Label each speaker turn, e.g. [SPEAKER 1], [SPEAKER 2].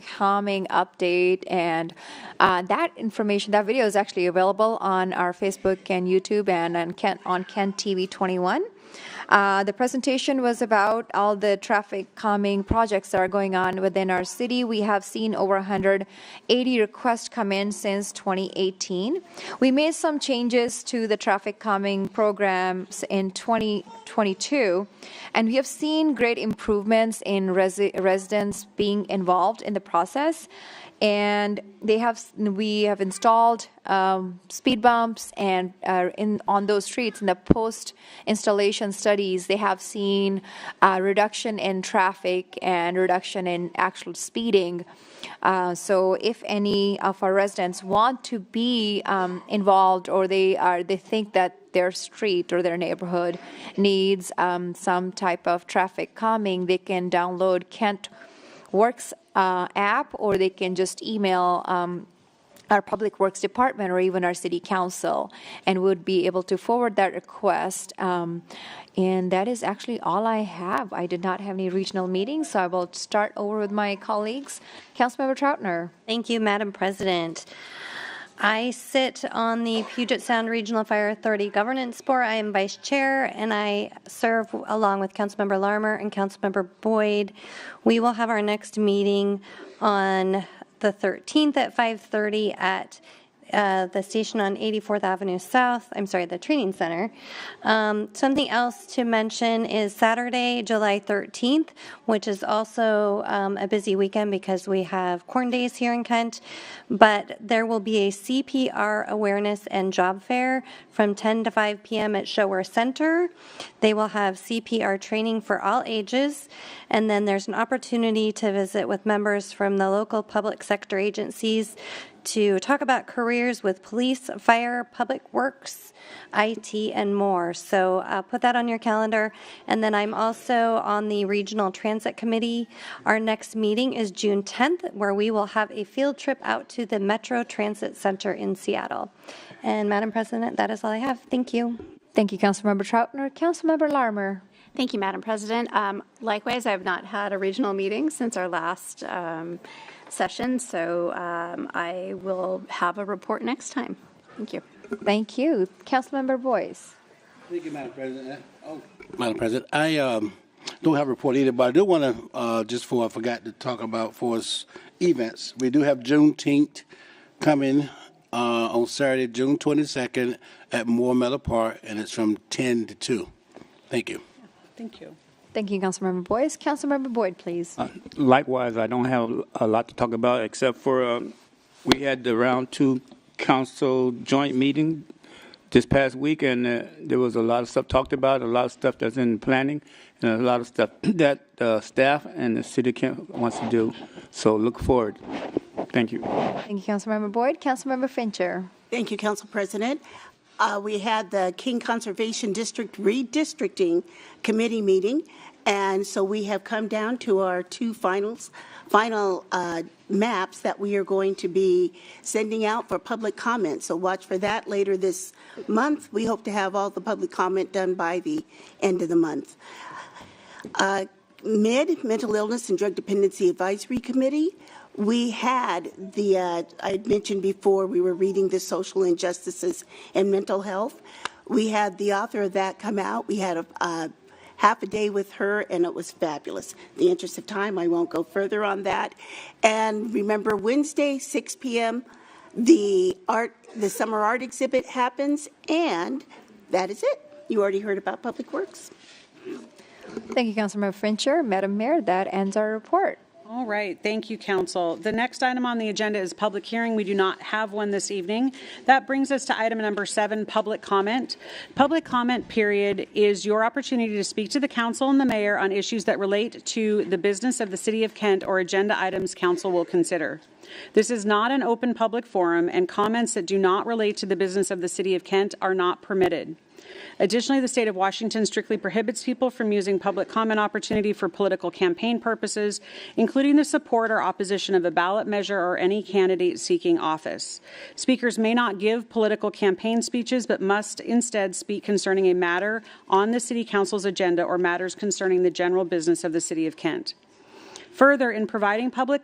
[SPEAKER 1] calming update. And uh, that information, that video is actually available on our Facebook and YouTube and, and Kent, on Kent TV 21. Uh, the presentation was about all the traffic calming projects that are going on within our city. We have seen over 180 requests come in since 2018. We made some changes to the traffic calming programs in 2022, and we have seen great improvements in resi- residents being involved in the process and they have we have installed um, speed bumps and uh, in on those streets in the post installation studies they have seen uh, reduction in traffic and reduction in actual speeding uh, so if any of our residents want to be um, involved or they are they think that their street or their neighborhood needs um, some type of traffic calming they can download kent Works uh, app, or they can just email um, our Public Works Department or even our City Council, and would be able to forward that request. Um, and that is actually all I have. I did not have any regional meetings, so I will start over with my colleagues. Councilmember Troutner.
[SPEAKER 2] Thank you, Madam President. I sit on the Puget Sound Regional Fire Authority Governance Board. I am vice chair, and I serve along with Councilmember Larmer and Councilmember Boyd. We will have our next meeting on the 13th at 5:30 at uh, the station on 84th Avenue South, I'm sorry, the training center. Um, something else to mention is Saturday, July 13th, which is also um, a busy weekend because we have Corn Days here in Kent, but there will be a CPR awareness and job fair from 10 to 5 p.m. at Shower Center. They will have CPR training for all ages, and then there's an opportunity to visit with members from the local public sector agencies to talk about careers with police, fire, public works, IT, and more. So uh, put that on your calendar. And then I'm also on the Regional Transit Committee. Our next meeting is June 10th, where we will have a field trip out to the Metro Transit Center in Seattle. And Madam President, that is all I have. Thank you.
[SPEAKER 1] Thank you, Councilmember Troutner. Councilmember Larmer.
[SPEAKER 3] Thank you, Madam President. Um, Likewise, I have not had a regional meeting since our last um, session, so um, I will have a report next time. Thank you.
[SPEAKER 1] Thank you, Councilmember Boyce.
[SPEAKER 4] Thank you, Madam President. Oh, Madam President, I um, don't have a report either, but I do want to, uh, just for, I forgot to talk about for us events. We do have Juneteenth coming uh, on Saturday, June 22nd at Moore Meadow Park, and it's from 10 to 2. Thank you.
[SPEAKER 5] Thank you.
[SPEAKER 1] Thank you, Councilmember Boyce. Councilmember Boyd, please.
[SPEAKER 6] Uh, Likewise, I don't have a lot to talk about except for um, we had the round two council joint meeting this past week, and uh, there was a lot of stuff talked about, a lot of stuff that's in planning, and a lot of stuff that uh, staff and the city council wants to do. So look forward. Thank you.
[SPEAKER 1] Thank you, Councilmember Boyd. Councilmember Fincher.
[SPEAKER 5] Thank you, Council President. Uh, we had the King Conservation District redistricting committee meeting, and so we have come down to our two finals, final uh, maps that we are going to be sending out for public comment. So watch for that later this month. We hope to have all the public comment done by the end of the month. Uh, MID, Mental Illness and Drug Dependency Advisory Committee, we had the, uh, I had mentioned before, we were reading the social injustices and mental health. We had the author of that come out. We had a, uh half a day with her, and it was fabulous. In the interest of time, I won't go further on that. And remember, Wednesday, 6 p.m., the art, the summer art exhibit happens, and that is it. You already heard about Public Works.
[SPEAKER 1] Thank you, Councilmember Fincher. Madam Mayor, that ends our report.
[SPEAKER 7] All right, thank you, council. The next item on the agenda is public hearing. We do not have one this evening. That brings us to item number seven, public comment. Public comment period is your opportunity to speak to the council and the mayor on issues that relate to the business of the city of Kent or agenda items council will consider. This is not an open public forum, and comments that do not relate to the business of the city of Kent are not permitted. Additionally, the state of Washington strictly prohibits people from using public comment opportunity for political campaign purposes, including the support or opposition of a ballot measure or any candidate seeking office. Speakers may not give political campaign speeches, but must instead speak concerning a matter on the city council's agenda or matters concerning the general business of the city of Kent. Further, in providing public